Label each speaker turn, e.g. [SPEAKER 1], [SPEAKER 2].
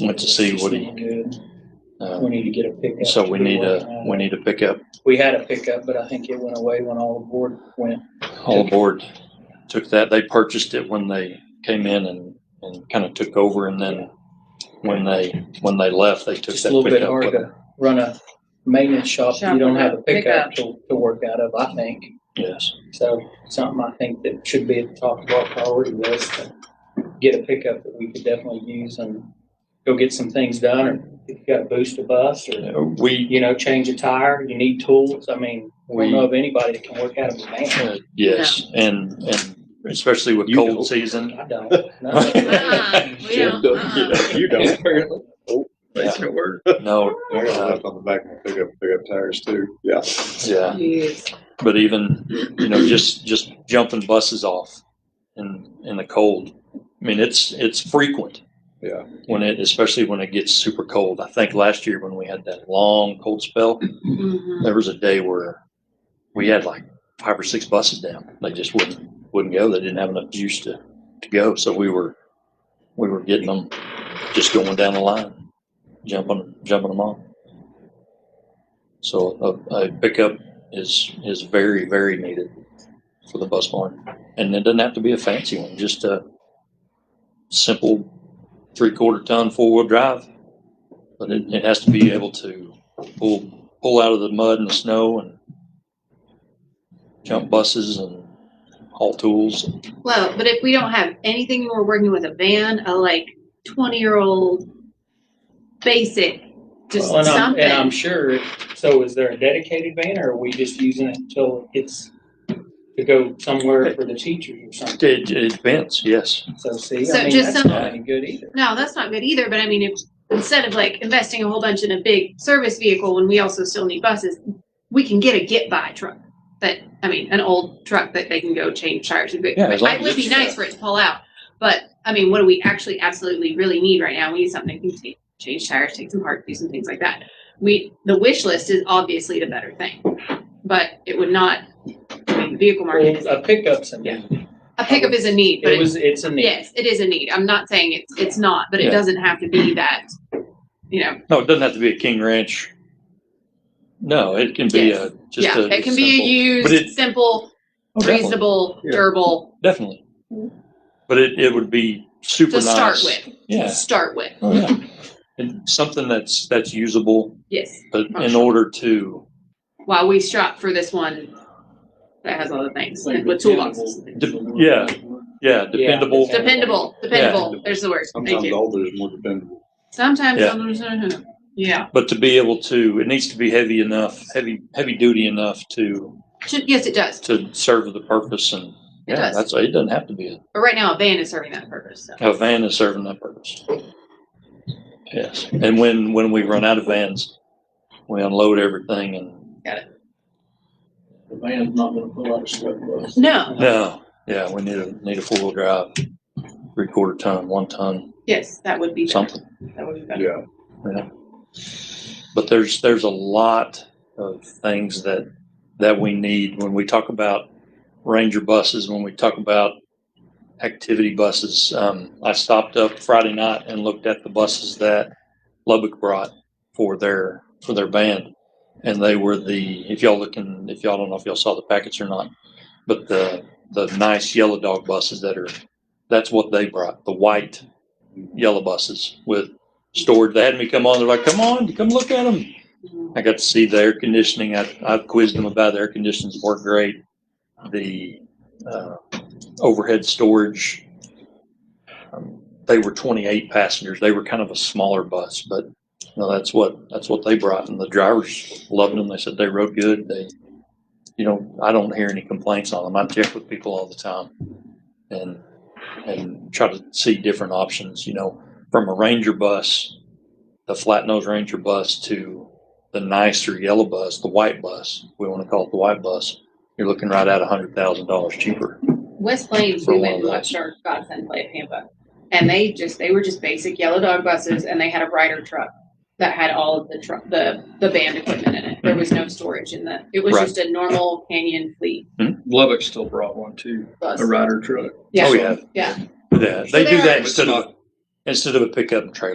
[SPEAKER 1] went to see what he-
[SPEAKER 2] We
[SPEAKER 1] Uh,
[SPEAKER 2] need to get a pickup.
[SPEAKER 1] So
[SPEAKER 2] to
[SPEAKER 1] we
[SPEAKER 2] do
[SPEAKER 1] need
[SPEAKER 2] it.
[SPEAKER 1] a, we need a pickup.
[SPEAKER 2] We had a pickup, but I think it went away when all aboard went.
[SPEAKER 1] All aboard took that. They purchased it when they came in and, and kind of took over. And then when they, when they left, they took
[SPEAKER 2] Just a
[SPEAKER 1] that
[SPEAKER 2] little bit
[SPEAKER 1] pickup. with
[SPEAKER 2] hard
[SPEAKER 1] them.
[SPEAKER 2] to run a maintenance shop, if
[SPEAKER 3] Shop
[SPEAKER 2] you don't have a
[SPEAKER 3] without pickup.
[SPEAKER 2] pickup to, to work out of, I think.
[SPEAKER 1] Yes.
[SPEAKER 2] So something I think that should be at the top of our priority list, to get a pickup that we could definitely use and go get some things done, or if you gotta boost a bus, or,
[SPEAKER 1] We,
[SPEAKER 2] you know, change a tire, you need tools, I mean, we don't know
[SPEAKER 1] we,
[SPEAKER 2] of anybody that can work out of a van.
[SPEAKER 1] uh, yes. And, and especially with
[SPEAKER 4] You know.
[SPEAKER 1] cold season.
[SPEAKER 2] I don't, no.
[SPEAKER 3] Uh-uh, we don't, uh-uh.
[SPEAKER 5] ah.
[SPEAKER 4] You don't. Apparently.
[SPEAKER 1] Yeah.
[SPEAKER 4] it work.
[SPEAKER 1] No, uh,
[SPEAKER 5] I got left on the back of my pickup, pickup tires too. Yeah.
[SPEAKER 1] yeah.
[SPEAKER 3] Yes.
[SPEAKER 1] but even you know just just jumping buses off in in the cold i mean it's it's frequent
[SPEAKER 5] Yeah.
[SPEAKER 1] when it especially when it gets super cold i think last year when we had that long cold spell
[SPEAKER 3] Mhm.
[SPEAKER 1] there was a day where we had like five or six buses down they just wouldn't wouldn't go they didn't have enough juice to to go so we were we were getting them just going down the line jumping jumping them off so a, a pickup is is very very needed for the bus barn, and it doesn't have to be a fancy one. Just a simple three quarter ton four wheel drive, but it, it has to be able to pull pull out of the mud and the snow and jump buses and haul tools.
[SPEAKER 3] Well, but if we don't have anything, we're working with a van, a like twenty-year-old basic, just
[SPEAKER 2] Well, and I'm- And I'm
[SPEAKER 3] something.
[SPEAKER 2] sure, so is there a dedicated van, or are we just using it until it's to go somewhere for the teachers or something?
[SPEAKER 1] It, it depends. Yes,
[SPEAKER 2] So see,
[SPEAKER 3] So
[SPEAKER 2] I mean,
[SPEAKER 3] just
[SPEAKER 2] that's
[SPEAKER 3] some-
[SPEAKER 2] not any good either.
[SPEAKER 3] No, that's not good either, but I mean, if, instead of like investing a whole bunch in a big service vehicle when we also still need buses, we can get a get-by truck that, I mean, an old truck that they can go change tires and.
[SPEAKER 1] Yeah, as long
[SPEAKER 3] It
[SPEAKER 1] as
[SPEAKER 3] would be
[SPEAKER 1] it's-
[SPEAKER 3] nice for it to pull out, but, I mean, what do we actually absolutely really need right now? We need something that can take, change tires, take some parts, do some things like that. We, the wish list is obviously the better thing, but it would not, I mean, the vehicle market is,
[SPEAKER 2] Well, a pickup's a
[SPEAKER 3] Yeah.
[SPEAKER 2] need.
[SPEAKER 3] a pickup is a need, but
[SPEAKER 2] It
[SPEAKER 3] it's
[SPEAKER 2] was, it's a need.
[SPEAKER 3] Yes, it is a need. I'm not saying it's it's not, but it
[SPEAKER 1] Yeah.
[SPEAKER 3] doesn't have to be that. You know,
[SPEAKER 1] no, it doesn't have to be a King Ranch. No, it can be a just
[SPEAKER 3] yeah,
[SPEAKER 1] a
[SPEAKER 3] it can be
[SPEAKER 1] simple-
[SPEAKER 3] a
[SPEAKER 1] but it-
[SPEAKER 3] used, simple,
[SPEAKER 1] Oh, definitely.
[SPEAKER 3] reasonable,
[SPEAKER 1] Yeah.
[SPEAKER 3] durable
[SPEAKER 1] Definitely. But it, it would be super
[SPEAKER 3] to start
[SPEAKER 1] nice.
[SPEAKER 3] with. To
[SPEAKER 1] Yeah.
[SPEAKER 3] start with,
[SPEAKER 1] Oh, yeah. And something that's that's usable,
[SPEAKER 3] yes.
[SPEAKER 1] but
[SPEAKER 3] Oh,
[SPEAKER 1] in
[SPEAKER 3] sure.
[SPEAKER 1] order to
[SPEAKER 3] While we shop for this one that has all the things and with toolboxes,
[SPEAKER 1] de- yeah, yeah, dependable.
[SPEAKER 2] Yeah.
[SPEAKER 3] dependable, dependable. There's the word. Thank
[SPEAKER 5] Sometimes
[SPEAKER 3] you.
[SPEAKER 5] older is more dependable.
[SPEAKER 3] Sometimes,
[SPEAKER 1] Yeah.
[SPEAKER 3] sometimes- yeah.
[SPEAKER 1] But to be able to, it needs to be heavy enough, heavy heavy duty enough to
[SPEAKER 3] Should- Yes, it does.
[SPEAKER 1] to serve the purpose. And
[SPEAKER 3] It
[SPEAKER 1] yeah,
[SPEAKER 3] does.
[SPEAKER 1] that's it. Doesn't have to be
[SPEAKER 3] But right now, a van is serving that purpose. So.
[SPEAKER 1] a, a van is serving that purpose. Yes, and when when we run out of vans, we unload everything and
[SPEAKER 6] The van's not gonna pull out a sweat bus.
[SPEAKER 3] No.
[SPEAKER 1] no, yeah, we need a need a four wheel drive, three quarter ton, one ton,
[SPEAKER 3] Yes, that would be better.
[SPEAKER 1] something.
[SPEAKER 3] That would be better.
[SPEAKER 5] Yeah.
[SPEAKER 1] but there's there's a lot of things that that we need when we talk about ranger buses when we talk about activity buses um, i stopped up friday night and looked at the buses that lubbock brought for their for their band and they were the if y'all looking if y'all don't know if y'all saw the packets or not but the the nice yellow dog buses that are that's what they brought the white yellow buses with storage. They had me come on. They're like, "Come on, come look at them."
[SPEAKER 3] Mm-hmm.
[SPEAKER 1] I got to see the air conditioning. I, I quizzed them about the air conditioners. Worked great. The uh, overhead storage. Um, they were 28 passengers. They were kind of a smaller bus, but no, that's what that's what they brought, and the drivers loved them. They said they rode good. They, you know, I don't hear any complaints on them. I check with people all the time, and and try to see different options. You know, from a Ranger bus, the flat nose Ranger bus to the nicer yellow bus, the white bus. We want to call it the white bus. You're looking right at hundred thousand dollars cheaper.
[SPEAKER 3] West Plains,
[SPEAKER 1] For
[SPEAKER 3] we
[SPEAKER 1] one
[SPEAKER 3] went
[SPEAKER 1] of
[SPEAKER 3] and
[SPEAKER 1] those.
[SPEAKER 3] watched our godson play at Pampa. And they just, they were just basic yellow dog buses and they had a rider truck that had all of the truck, the, the band equipment in it. There was no storage in the, it was
[SPEAKER 1] Right.
[SPEAKER 3] just a normal Canyon fleet
[SPEAKER 4] Lubbock still brought one too,
[SPEAKER 3] bus.
[SPEAKER 4] a rider truck.
[SPEAKER 3] Yeah.
[SPEAKER 1] Oh yeah,
[SPEAKER 3] Yeah.
[SPEAKER 1] yeah. They do
[SPEAKER 3] So there are-
[SPEAKER 1] that instead of instead of a pickup and trailer.